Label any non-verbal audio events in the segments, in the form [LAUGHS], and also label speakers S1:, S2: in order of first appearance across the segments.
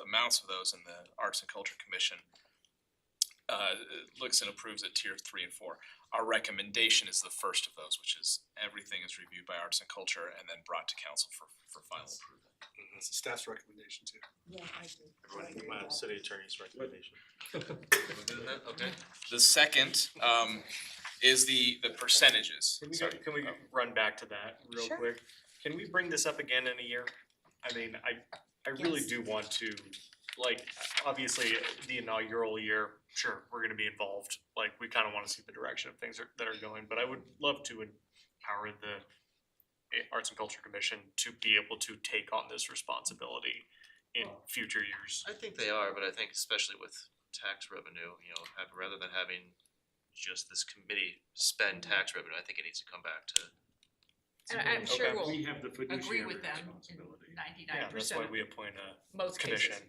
S1: amounts of those, and the Arts and Culture Commission uh, looks and approves at tier three and four. Our recommendation is the first of those, which is everything is reviewed by Arts and Culture and then brought to council for, for final approval.
S2: That's the staff's recommendation too.
S3: Yeah, I do.
S4: Everyone keep my city attorney's recommendation.
S1: Okay. The second, um, is the, the percentages.
S4: Can we, go-
S1: Sorry.
S4: can
S5: Oh.
S4: we run back to that real
S3: Sure.
S4: quick? Can we bring this up again in a year? I mean, I, I really
S3: Yes.
S4: do want to, like, obviously, the inaugural year, sure, we're gonna be involved. Like, we kinda wanna see the direction of things are- that are going, but I would love to empower the eh, Arts and Culture Commission to be able to take on this responsibility in future years.
S6: I think they are, but I think especially with tax revenue, you know, have, rather than having just this committee spend tax revenue, I think it needs to come back to
S7: And I'm sure
S4: Okay.
S7: we'll,
S8: We have the fiduciary
S7: with them in
S8: responsibility.
S4: Yeah,
S7: ninety-nine
S4: that's
S7: percent
S4: why
S7: of
S4: we appoint a
S7: most cases.
S4: commission.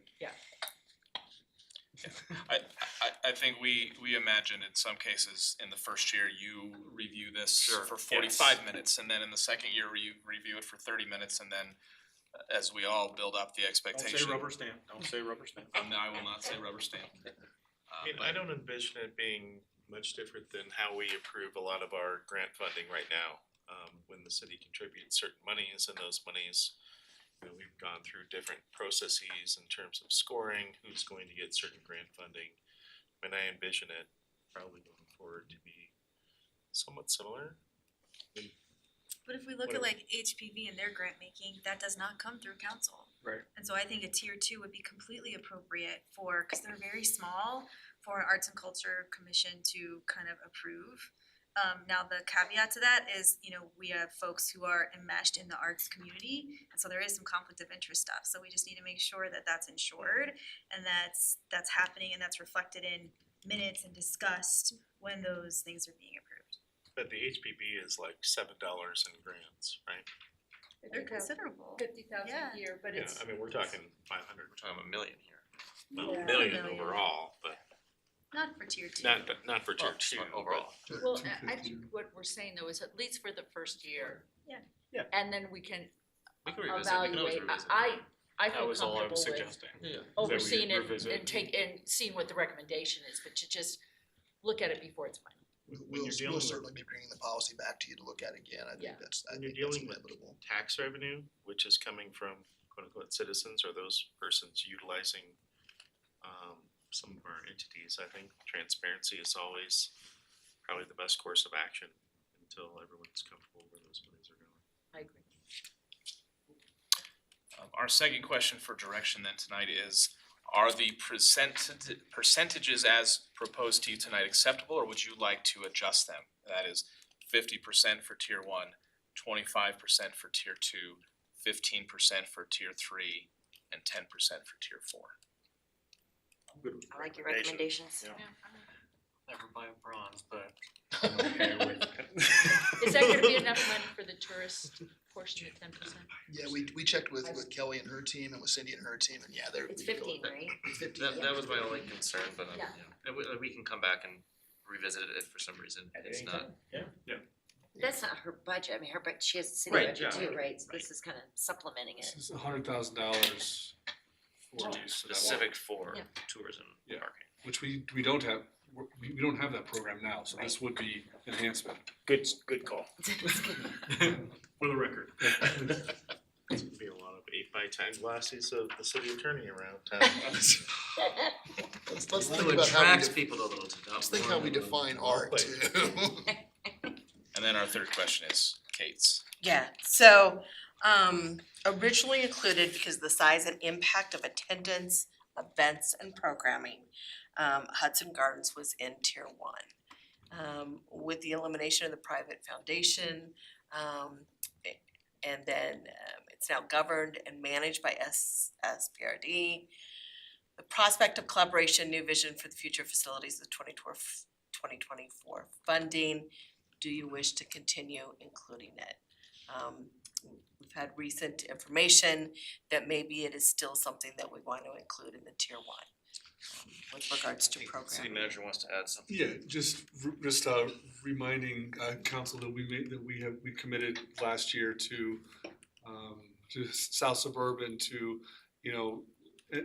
S1: I, I, I think we, we imagine in some cases, in the first year, you review this
S4: Sure,
S1: for
S4: yes.
S1: forty-five minutes, and then in the second year, you review it for thirty minutes, and then uh, as we all build up the
S8: Don't
S1: expectation.
S8: say rubber stamp, don't say rubber stamp.
S1: Um, no, I will not say rubber stamp. Uh,
S5: I mean,
S1: but-
S5: I don't envision it being much different than how we approve a lot of our grant funding right now. Um, when the city contributes certain monies and those monies, you know, we've gone through different processes in terms of scoring, who's going to get certain grant funding. And I envision it probably going forward to be somewhat similar.
S9: But if we look at like HPV and their grant making, that does not come through council.
S4: Right.
S9: And so I think a tier two would be completely appropriate for, cause they're very small, for an Arts and Culture Commission to kind of approve. Um, now the caveat to that is, you know, we have folks who are enmeshed in the arts community, and so there is some conflict of interest stuff, so we just need to make sure that that's ensured. And that's, that's happening and that's reflected in minutes and discussed when those things are being approved.
S5: But the HPB is like seven dollars in grants, right?
S9: They're considerable.
S7: Fifty thousand
S9: Yeah.
S7: a year, but
S5: Yeah,
S7: it's,
S5: I mean, we're talking five hundred,
S6: we're talking about Um, a million here.
S3: Yeah.
S5: million
S9: Million.
S5: overall, but
S9: Not for tier two.
S5: not, but not for tier
S6: Well,
S5: two. but-
S6: Overall.
S7: well, I- I think what we're saying though is at least for the first year.
S9: Yeah.
S4: Yeah.
S7: And then we can
S6: We can revisit, we can always
S7: evaluate,
S6: revisit.
S7: I, I I
S4: That
S7: feel
S4: was all I
S7: comfortable
S4: was
S7: with
S4: suggesting.
S7: overseeing it
S4: revisit.
S7: and take, and seeing what the recommendation is, but to just look at it before it's final.
S4: you're
S10: We'll,
S4: dealing
S10: we'll
S4: with-
S10: certainly be bringing the policy back to you to look at again, I
S7: Yeah.
S10: think that's, I
S5: When you're
S10: think that's
S5: dealing with-
S10: inevitable.
S5: tax revenue, which is coming from quote unquote citizens or those persons utilizing um some of our entities, I think transparency is always probably the best course of action until everyone's comfortable where those monies are going.
S7: I agree.
S1: Um, our second question for direction then tonight is, are the percentage, percentages as proposed to you tonight acceptable, or would you like to adjust them? That is fifty percent for tier one, twenty-five percent for tier two, fifteen percent for tier three, and ten percent for tier four.
S8: I like your
S4: Yeah. Never buy a bronze, but
S7: Is that gonna be enough money for the tourist portion of ten percent?
S10: Yeah, we, we checked with,
S7: I was-
S10: with Kelly and her team and with Cindy and her team, and yeah, they're.
S7: It's
S10: we feel
S7: fifteen,
S10: like-
S7: right?
S10: it's Fifteen.
S6: That, that was my only concern, but, um,
S7: Yeah.
S6: yeah, and we, we can come back and revisit it if for some reason it's not.
S11: That's not her budget, I mean, her, but she has a city
S4: Right,
S11: budget
S4: yeah.
S11: too, right, so this is kind of supplementing it.
S8: This is a hundred thousand dollars for use of that water,
S6: Specific for
S7: Yeah.
S6: tourism
S8: Yeah.
S6: market.
S8: which we, we don't have, we, we don't have that program now, so this would be enhancement.
S4: good, good
S7: [LAUGHS]
S4: call.
S8: [LAUGHS] For the record.
S6: [LAUGHS]
S5: It's gonna be a lot of eight by ten glasses of the city attorney around town.
S10: Let's, let's
S6: It
S10: think about how we,
S6: attracts
S10: de-
S6: people to those, not
S10: let's think how
S6: more
S10: we
S6: than-
S10: define art too. [LAUGHS]
S1: And then our third question is Kate's.
S3: Yeah, so um originally included because of the size and impact of attendance, events and programming. Um Hudson Gardens was in tier one. Um with the elimination of the private foundation, um a- and then um it's now governed and managed by S S P R D. The prospect of collaboration, new vision for the future facilities of 2024 funding. Do you wish to continue including it? Um, we've had recent information that maybe it is still something that we want to include in the tier one um, with regards to
S6: City
S3: programming.
S6: manager wants to add something.
S8: Yeah, just, r- just uh, reminding uh, council that we made, that we have, we committed last year to, um, to South Suburban to, you know, eh,